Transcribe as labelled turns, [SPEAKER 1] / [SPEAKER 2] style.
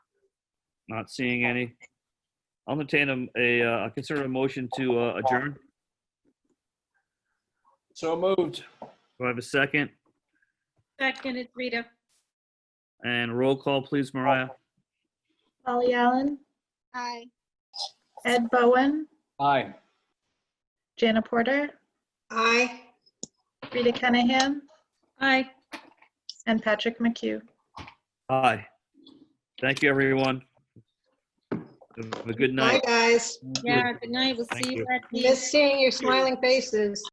[SPEAKER 1] Not seeing any. I'll entertain a, a, uh, consider a motion to uh, adjourn.
[SPEAKER 2] So moved.
[SPEAKER 1] Do I have a second?
[SPEAKER 3] Seconded, Rita.
[SPEAKER 1] And roll call, please, Mariah.
[SPEAKER 4] Polly Allen,
[SPEAKER 3] Aye.
[SPEAKER 4] Ed Bowen,
[SPEAKER 2] Aye.
[SPEAKER 4] Jana Porter,
[SPEAKER 3] Aye.
[SPEAKER 4] Rita Kenahan,
[SPEAKER 3] Aye.
[SPEAKER 4] and Patrick McHugh.
[SPEAKER 1] Aye. Thank you, everyone. Have a good night.
[SPEAKER 5] Bye, guys.
[SPEAKER 3] Yeah, good night. We'll
[SPEAKER 1] Thank
[SPEAKER 3] see you
[SPEAKER 1] you.
[SPEAKER 3] at the.
[SPEAKER 5] Miss seeing your smiling faces.